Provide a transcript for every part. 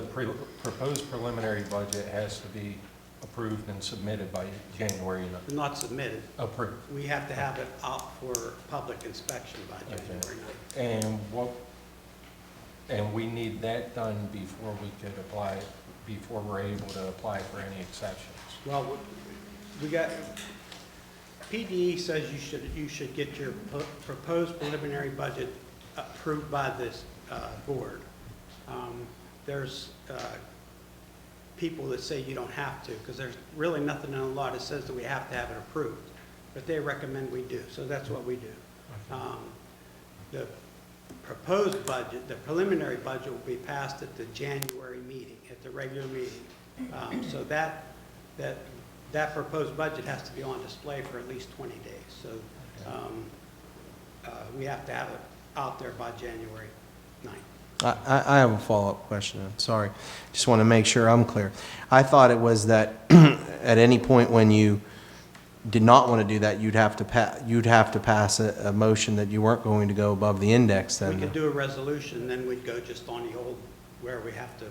pre- proposed preliminary budget has to be approved and submitted by January, and Not submitted. approved. We have to have it out for public inspection by January ninth. And what, and we need that done before we could apply, before we're able to apply for any exceptions. Well, we- we got, PDE says you should, you should get your po- proposed preliminary budget approved by this uh, board. Um, There's uh, people that say you don't have to, because there's really nothing in the law that says that we have to have it approved, but they recommend we do, so that's what we do. Um, The proposed budget, the preliminary budget will be passed at the January meeting, at the regular meeting. Um, So that, that, that proposed budget has to be on display for at least 20 days. So um, uh, we have to have it out there by January 9th. I, I- I have a follow-up question, I'm sorry. Just want to make sure I'm clear. I thought it was that at any point when you did not want to do that, you'd have to pa, you'd have to pass a, a motion that you weren't going to go above the index then. We could do a resolution, then we'd go just on the old, where we have to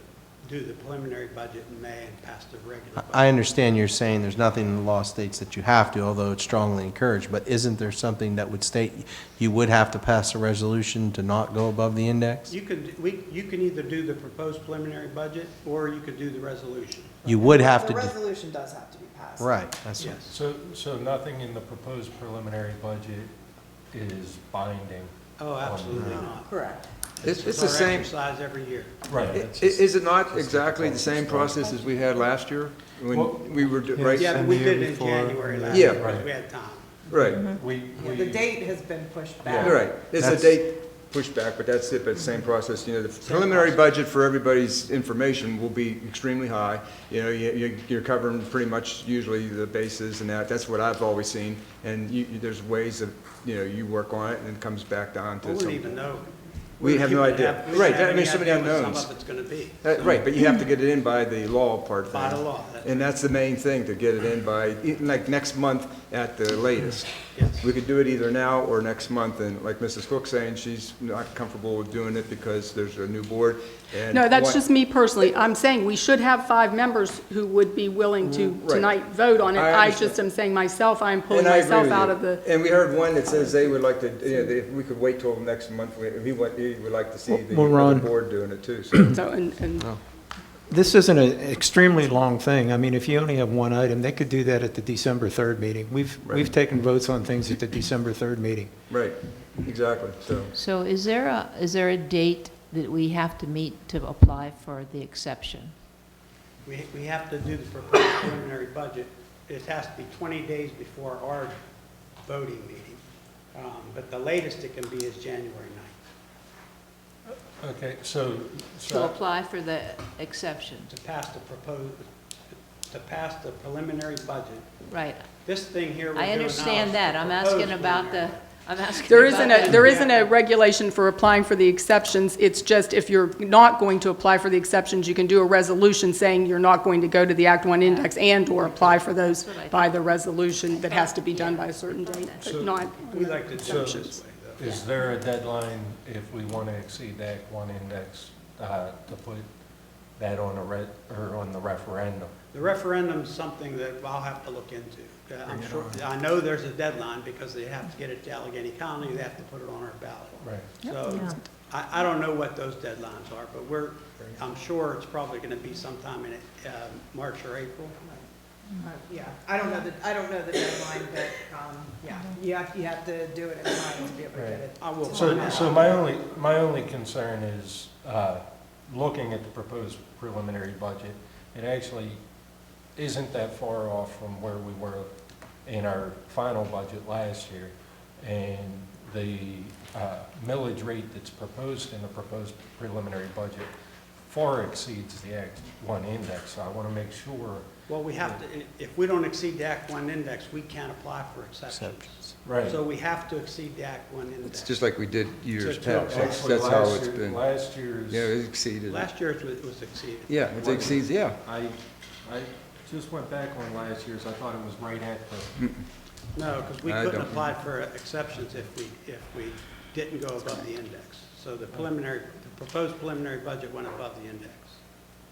do the preliminary budget in May and pass the regular I budget. understand you're saying there's nothing in the law states that you have to, although it's strongly encouraged, but isn't there something that would state you would have to pass a resolution to not go above the index? You could, we, you can either do the proposed preliminary budget, or you could do the resolution. You would have to The do, resolution does have to be passed. right, that's what. Yes. So, so nothing in the proposed preliminary budget is binding? Oh, uh, absolutely not. Correct. It's, it's the It's our same, exercise every year. Right. i- that's just- is it not exactly the same process as we had last year? Well- When we were, do- Yeah, right, it's- Yeah, And we the did year it in before. January last Yeah. year, because we had time. Mm-hmm. right, We, Yeah, we. The date has been pushed back. Yeah. right. It's a That's- date pushback, but that's it, but same Mm-hmm. process, you know, the preliminary budget for everybody's information will be extremely high. You know, you, you- you're covering pretty much usually the bases and that, that's what I've always seen. And you, you- there's ways of, you know, you work on it and it comes back down We to wouldn't some. even know. We have no wouldn't idea. have- we wouldn't Right, have that- I mean, any so many idea what unknowns. Some of it's gonna be. Uh, Right, but you have to get it in by the law part of By the things. law, that's- And that's the main thing, to get it in by, like, next month at the latest. Yes. We could do it either now or next month, and like Mrs. Cook's saying, she's not comfortable with doing it because there's a new board, and... No, that's one- just me personally. I'm saying we should have five members who would be willing to Right. tonight vote on it. I I understand. just am saying myself, I'm pulling And I agree myself with out you. of the, And we heard one that says they would like to, you know, if we could wait till next month, we- he would, he would like to see the Well, other Ron- board doing it too, so... so, and, and, This isn't an extremely long thing. I mean, if you only have one item, they could do that at the December 3rd meeting. We've, we've taken votes on things at the December 3rd meeting. Right, exactly, so... So is there a, is there a date that we have to meet to apply for the exception? We, we have to do the proposed preliminary budget. It has to be 20 days before our voting meeting. Um, But the latest it can be is January 9th Okay, so, To so, apply for the exception, to pass the proposed, to pass the preliminary budget. right? This thing here we're doing I now is understand that, I'm proposed asking about the, preliminary. I'm asking there about isn't a, the- there isn't a regulation for applying for the exceptions. It's just if you're not going to apply for the exceptions, you can do a resolution saying you're not going to go to the Act One index and/or apply for those That's what I by the resolution that has to be done by a certain date, but not. We like to do it this Exemptions. way, though. is there a deadline if we want to exceed that one index, uh, to put that on a re, or on the referendum? The referendum's something that I'll have to look into. Uh, I'm sure, I know there's a deadline because they have to get it to Allegheny County, they have to put it on our ballot. Right. So I, I don't know what those deadlines are, but we're, I'm sure it's probably going to be sometime in uh, March or April. Uh, Yeah, I don't know the, I don't know the deadline, but, um, yeah, you have, you have to do it in time to be able to get it. I will find So, out. so my only, my only concern is, uh, looking at the proposed preliminary budget, it actually isn't that far off from where we were in our final budget last year. And the, uh, millage rate that's proposed in the proposed preliminary budget far exceeds the Act One index. So I want to make sure, Well, we have to, if we don't exceed the Act One index, we can't apply for exceptions. right. So we have to exceed the Act One index. It's just like we did years Just to- past, that's Actually, that's how last it's year- been. Last year's. Yeah, it exceeded. it. Last year it was- it was exceeded. Yeah, it exceeds, yeah. I, I just went back on last year's, I thought it was right at the, No, because we I couldn't don't- apply for exceptions if we, if we didn't go above the index. So the preliminary, the proposed preliminary budget went above the index.